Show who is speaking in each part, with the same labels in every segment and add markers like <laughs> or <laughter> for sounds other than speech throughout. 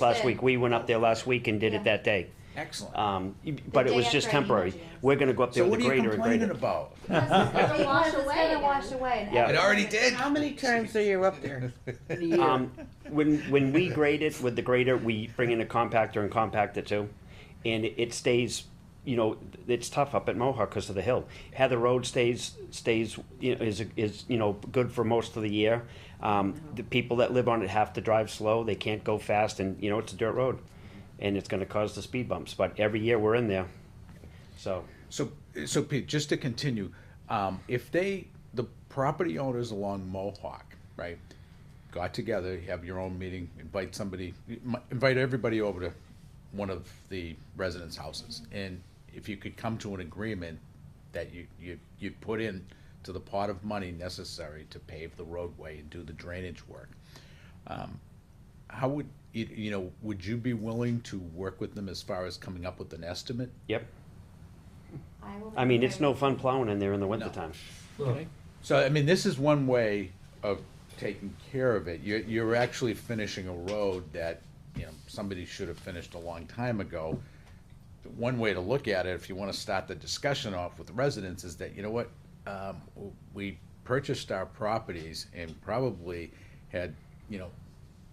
Speaker 1: last week, we went up there last week and did it that day.
Speaker 2: Excellent.
Speaker 1: Um, but it
Speaker 3: day
Speaker 1: was just
Speaker 3: after I
Speaker 1: temporary.
Speaker 3: emailed you.
Speaker 1: We're gonna go up there
Speaker 2: So
Speaker 1: with
Speaker 2: what
Speaker 1: a
Speaker 2: are you
Speaker 1: grader and grade
Speaker 2: complaining
Speaker 1: it.
Speaker 2: about?
Speaker 3: It's gonna wash away
Speaker 4: Because It's gonna
Speaker 3: again.
Speaker 4: wash away. and
Speaker 1: Yeah.
Speaker 2: It already did.
Speaker 5: How many times are you up there?
Speaker 2: <laughs>
Speaker 5: in a year?
Speaker 1: Um, when, when we grade it with the grader, we bring in a compactor and compact it too. And it stays, you know, it's tough up at Mohawk because of the hill. Heather Road stays, stays, you know, is, is, you know, good for most of the year.
Speaker 3: Uh-huh.
Speaker 1: Um, the people that live on it have to drive slow, they can't go fast and, you know, it's a dirt road. And it's gonna cause the speed bumps, but every year we're in there, so.
Speaker 2: So, so Pete, just to continue, um, if they, the property owners along Mohawk, right, got together, you have your own meeting, invite somebody, invite everybody over to one of the residents' houses, and if you could come to an agreement that you, you, you put in to the pot of money necessary to pave the roadway and do the drainage work, um, how would, you, you know, would you be willing to work with them as far as coming up with an estimate?
Speaker 1: Yep.
Speaker 3: I will
Speaker 1: I mean, it's no
Speaker 3: remember.
Speaker 1: fun plowing in there in the wintertime.
Speaker 2: Okay. So, I mean, this is one way of taking care of it. You're, you're actually finishing a road that, you know, somebody should have finished a long time ago. One way to look at it, if you wanna start the discussion off with residents, is that, you know what? Um, we purchased our properties and probably had, you know,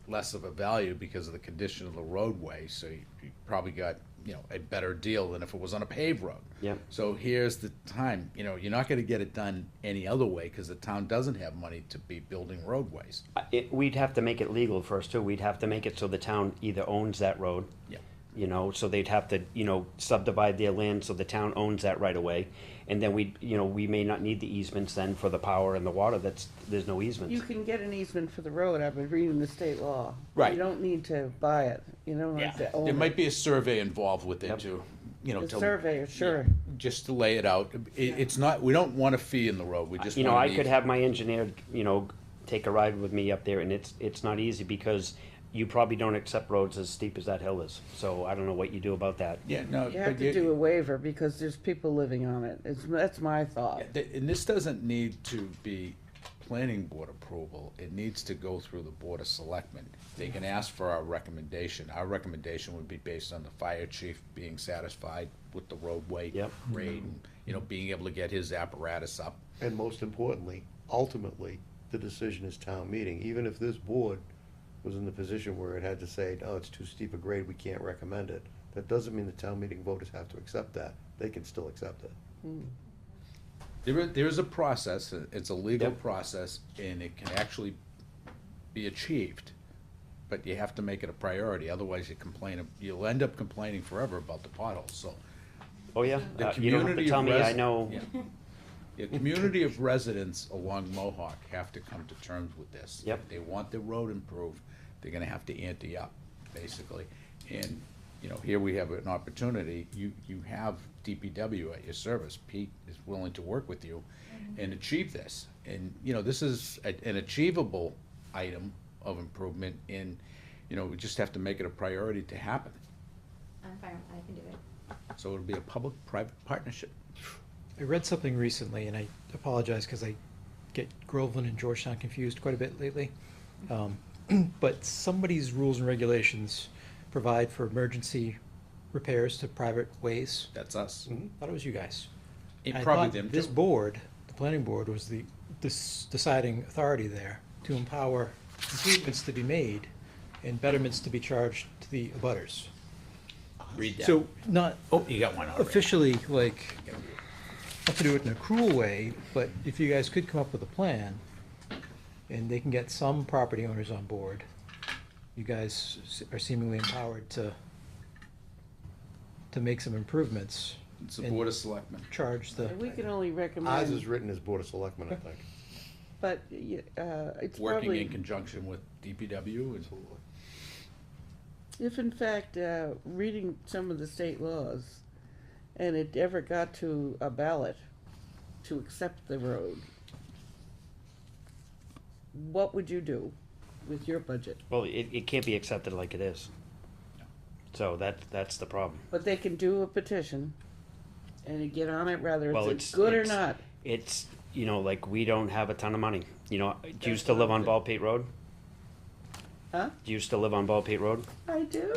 Speaker 2: less of a value because of the condition of the roadway, so you you probably got, you know, a better deal than if it was on a paved road.
Speaker 1: Yep.
Speaker 2: So here's the time, you know, you're not gonna get it done any other way, cause the town doesn't have money to be building roadways.
Speaker 1: I- It, we'd have to make it legal first too. We'd have to make it so the town either owns that road.
Speaker 2: Yeah.
Speaker 1: You know, so they'd have to, you know, subdivide their land so the town owns that right away. And then we, you know, we may not need the easements then for the power and the water. That's, there's no
Speaker 5: You
Speaker 1: easements.
Speaker 5: can get an easement for the road, I've been reading the state law.
Speaker 2: Right.
Speaker 5: You don't need to buy it, you don't have to
Speaker 2: There
Speaker 5: own
Speaker 2: might
Speaker 5: it.
Speaker 2: be a survey involved with it
Speaker 1: Yep.
Speaker 2: too, you know.
Speaker 5: The
Speaker 2: to-
Speaker 5: surveyor, sure.
Speaker 2: Just to lay it out. It, it's not, we don't want a fee in the road, we just
Speaker 1: You
Speaker 2: want
Speaker 1: know,
Speaker 2: an
Speaker 1: I could
Speaker 2: easement.
Speaker 1: have my engineer, you know, take a ride with me up there and it's, it's not easy because you probably don't accept roads as steep as that hill is. So I don't know what you do about that.
Speaker 2: Yeah, no.
Speaker 5: You have
Speaker 2: but
Speaker 5: to do a waiver because there's people living on it, it's, that's my thought.
Speaker 2: Yeah, th- And this doesn't need to be planning board approval, it needs to go through the board of selectmen. They can ask for our recommendation, our recommendation would be based on the fire chief being satisfied with the roadway.
Speaker 1: Yep.
Speaker 2: Grade, and, you know, being able to get his apparatus up.
Speaker 6: And most importantly, ultimately, the decision is town meeting, even if this board was in the position where it had to say, no, it's too steep a grade, we can't recommend it. That doesn't mean the town meeting voters have to accept that, they can still accept it.
Speaker 2: There is, there is a process, uh, it's a legal
Speaker 1: Yep.
Speaker 2: process, and it can actually be achieved, but you have to make it a priority, otherwise you complain, ab- you'll end up complaining forever about the potholes, so.
Speaker 1: Oh, yeah.
Speaker 2: The
Speaker 1: Uh, You don't have
Speaker 2: community
Speaker 1: to
Speaker 2: of
Speaker 1: tell me, I
Speaker 2: res-
Speaker 1: know.
Speaker 2: yeah. The community of residents along Mohawk have to come to terms with this.
Speaker 1: Yep.
Speaker 2: If They want the road improved, they're gonna have to ante up, basically. And, you know, here we have an opportunity, you, you have DPW at your service, Pete is willing to work with you and achieve this. And, you know, this is a- an achievable item of improvement and, you know, we just have to make it a priority to happen.
Speaker 3: I'm fine, I can do it.
Speaker 2: So it'll be a public-private partnership.
Speaker 7: I read something recently, and I apologize because I get Groveland and Georgetown confused quite a bit lately. Um, <clears throat> but somebody's rules and regulations provide for emergency repairs to private ways.
Speaker 2: That's us.
Speaker 1: Mm-hmm.
Speaker 7: I thought it was you guys.
Speaker 2: It
Speaker 7: I
Speaker 2: probably
Speaker 7: thought
Speaker 2: them
Speaker 7: This
Speaker 2: too.
Speaker 7: board, the planning board, was the this deciding authority there to empower improvements to be made and betterments to be charged to the abutters.
Speaker 2: Read that.
Speaker 7: So not
Speaker 2: Oh, you got one already.
Speaker 7: officially like not to do it in a cruel way, but if you guys could come up with a plan, and they can get some property owners on board, you guys s- are seemingly empowered to, to make some improvements,
Speaker 2: It's the Board of Selectmen.
Speaker 7: charge the,
Speaker 5: And We can only
Speaker 6: Ours
Speaker 5: recommend,
Speaker 6: is written as Board of Selectmen, I think.
Speaker 5: but, y- uh, it's
Speaker 2: Working in
Speaker 5: probably,
Speaker 2: conjunction with DPW and
Speaker 5: if in fact, uh, reading some of the state laws, and it ever got to a ballot to accept the road, what would you do with your budget?
Speaker 1: Well, it, it can't be accepted like it is. So that, that's the problem.
Speaker 5: But they can do a petition and get on it whether
Speaker 1: Well,
Speaker 5: it's
Speaker 1: it's-
Speaker 5: good or
Speaker 1: it's-
Speaker 5: not.
Speaker 1: It's, you know, like, we don't have a ton of money, you know, do you still live on Ball Pate Road?
Speaker 5: Huh?
Speaker 1: Do you still live on Bald Pete Road?
Speaker 5: I do.